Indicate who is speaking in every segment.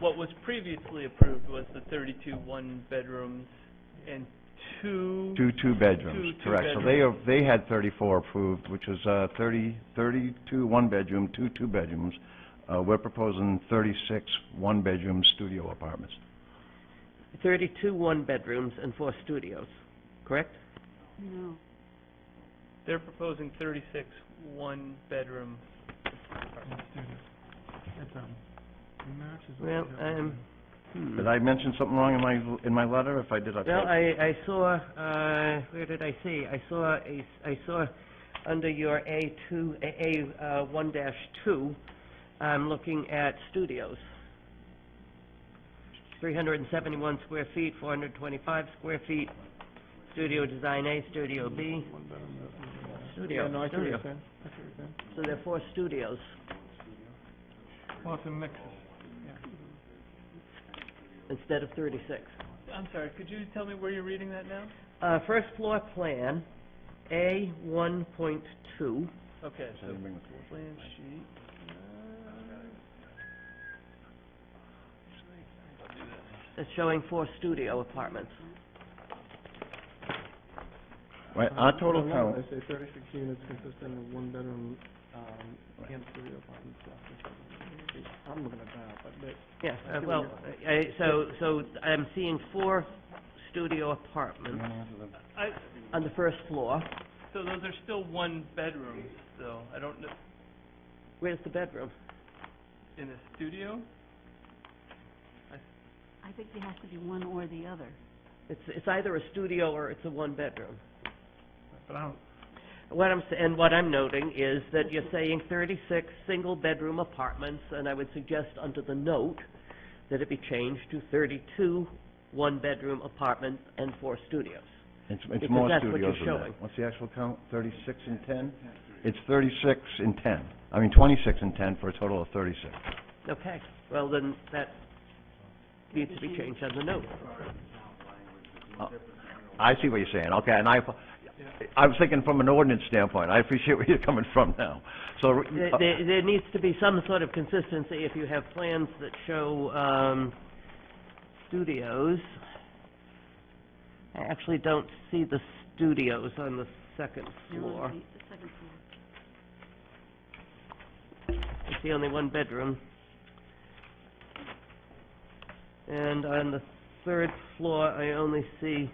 Speaker 1: what was previously approved was the thirty-two one-bedrooms and two.
Speaker 2: Two two-bedrooms,
Speaker 1: Two
Speaker 2: correct. So they, are- they had thirty-four approved, which was uh, thirty, thirty-two one-bedroom, two two-bedrooms. Uh, we're proposing thirty-six one-bedroom studio apartments.
Speaker 3: 32 one-bedrooms and four studios, correct?
Speaker 4: No.
Speaker 1: They're proposing thirty-six one-bedroom.
Speaker 2: Uh,
Speaker 3: Well, I'm, hmm.
Speaker 2: Did I mention something wrong in my, in my letter? If I did, I
Speaker 3: Well,
Speaker 2: apologize.
Speaker 3: I, I saw, uh, where did I see? I saw, a s- I saw under your A2, A, A, uh, one dash two, I'm looking at studios. Three hundred and seventy-one square feet, four hundred and twenty-five square feet, studio design A, studio B. Studio, studio. So there are four studios.
Speaker 5: Well, it's a mix.
Speaker 3: instead of 36.
Speaker 1: I'm sorry, could you tell me where you're reading that now?
Speaker 3: Uh, first floor plan, A 1.2,
Speaker 1: Okay, so
Speaker 2: Didn't bring the floor.
Speaker 1: plan sheet.
Speaker 3: it's showing four studio apartments.
Speaker 2: Right, our total count,
Speaker 5: I say thirty-six units consisting of one bedroom, um,
Speaker 2: Right.
Speaker 5: and studio apartments. I'm looking at that, but that,
Speaker 3: Yeah, uh, well, I, so, so I'm seeing four studio apartments
Speaker 1: I,
Speaker 3: on the first floor.
Speaker 1: so those are still one-bedrooms, though, I don't know,
Speaker 3: Where's the bedroom?
Speaker 1: in a studio?
Speaker 4: I think there has to be one or the other.
Speaker 3: It's, it's either a studio or it's a one-bedroom.
Speaker 5: but I don't,
Speaker 3: What I'm, s- and what I'm noting is that you're saying 36 single-bedroom apartments, and I would suggest under the note that it be changed to 32 one-bedroom apartments and four studios.
Speaker 2: it's, it's
Speaker 3: Because
Speaker 2: more
Speaker 3: that's what
Speaker 2: studios than
Speaker 3: you're
Speaker 2: that.
Speaker 3: showing.
Speaker 2: What's the actual count? Thirty-six and ten? It's thirty-six and ten. I mean, twenty-six and ten for a total of thirty-six.
Speaker 3: Okay, well, then that needs to be changed on the note.
Speaker 2: I see what you're saying, okay, and I, I was thinking from an ordinance standpoint, I appreciate where you're coming from now. So,
Speaker 3: There,
Speaker 2: uh,
Speaker 3: there- there needs to be some sort of consistency if you have plans that show, um, studios. I actually don't see the studios on the second
Speaker 4: They're on
Speaker 3: floor.
Speaker 4: The the second floor.
Speaker 3: It's the only one bedroom. And on the third floor, I only see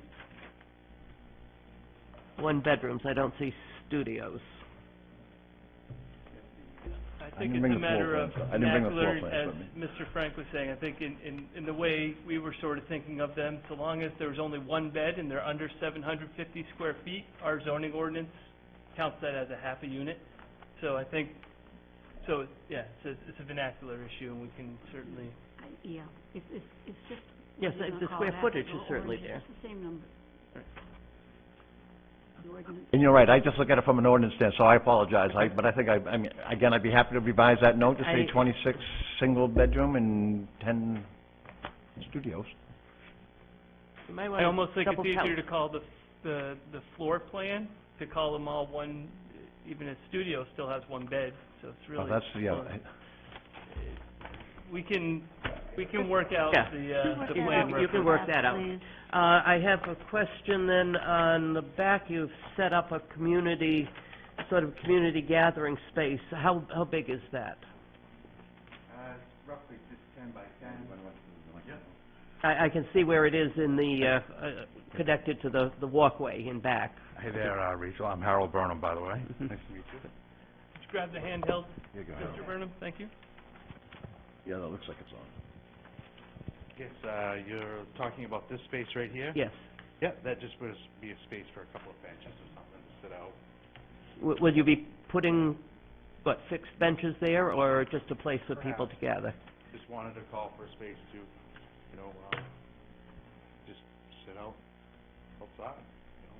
Speaker 3: one bedrooms, I don't see studios.
Speaker 1: I
Speaker 2: I
Speaker 1: think
Speaker 2: didn't
Speaker 1: it's
Speaker 2: bring
Speaker 1: a
Speaker 2: the floor
Speaker 1: matter of
Speaker 2: plans. I didn't bring the floor
Speaker 1: vernacular, as
Speaker 2: plans
Speaker 1: Mr. Frank was saying, I think in, in, in the way we were sort of thinking of them, so long as there's only one bed and they're under seven hundred fifty square feet, our zoning ordinance counts that as a half a unit. So I think, so, yeah, it's a, it's a vernacular issue and we can certainly,
Speaker 4: I- Yeah, it's, it's, it's just.
Speaker 3: Yes,
Speaker 4: what
Speaker 3: the-
Speaker 4: you
Speaker 3: the
Speaker 4: call
Speaker 3: square
Speaker 4: that,
Speaker 3: footage
Speaker 4: or-
Speaker 3: is certainly
Speaker 4: or
Speaker 3: there.
Speaker 4: It's the same number. The ordinance,
Speaker 2: and you're right, I just look at it from an ordinance stand, so I apologize, I, but I think I, I mean, again, I'd be happy to revise that note to say
Speaker 3: I-
Speaker 2: twenty-six single bedroom and ten studios.
Speaker 3: You might
Speaker 1: I
Speaker 3: wanna
Speaker 1: almost think it's
Speaker 3: double count.
Speaker 1: easier to call the, the, the floor plan, to call them all one, even a studio still has one bed, so it's really.
Speaker 2: Well, Oh, that's, yeah,
Speaker 1: close. We can, we can work out
Speaker 3: Yeah.
Speaker 1: the, uh, the
Speaker 4: You can
Speaker 1: plan.
Speaker 3: You can work that out.
Speaker 4: please.
Speaker 3: Uh, I have a question then, on the back, you've set up a community, sort of community gathering space. How, how big is that? Uh, roughly just ten by ten. I, I can see where it is in the, uh, uh, connected to the, the walkway in back.
Speaker 6: Hey there, uh, Rachel. I'm Harold Burnham, by the way. Nice to meet you.
Speaker 1: Just grab the handheld,
Speaker 2: Here you go.
Speaker 1: Mr. Burnham, thank you.
Speaker 2: yeah, that looks like it's on.
Speaker 6: Yes, uh, you're talking about this space right here?
Speaker 3: Yes.
Speaker 6: Yeah, that just would be a space for a couple of benches or something to sit out.
Speaker 3: W- Will you be putting, what, fixed benches there, or just a place for people to gather?
Speaker 6: Just wanted to call for a space to, you know, uh, just sit out outside, you know.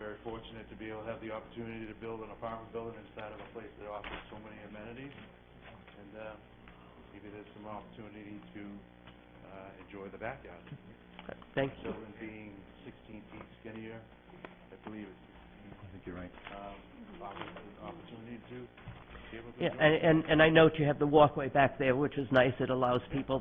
Speaker 6: Very fortunate to be able to have the opportunity to build an apartment building inside of a place that offers so many amenities. And, uh, maybe there's some opportunity to, uh, enjoy the backyard.
Speaker 3: Thank you.
Speaker 6: Sheldon being sixteen feet skinnier, I believe it's sixteen,
Speaker 2: I think you're right.
Speaker 6: um, offers an opportunity to be able to
Speaker 3: Yeah,
Speaker 6: enjoy.
Speaker 3: and, and- and I note you have the walkway back there, which is nice. It allows people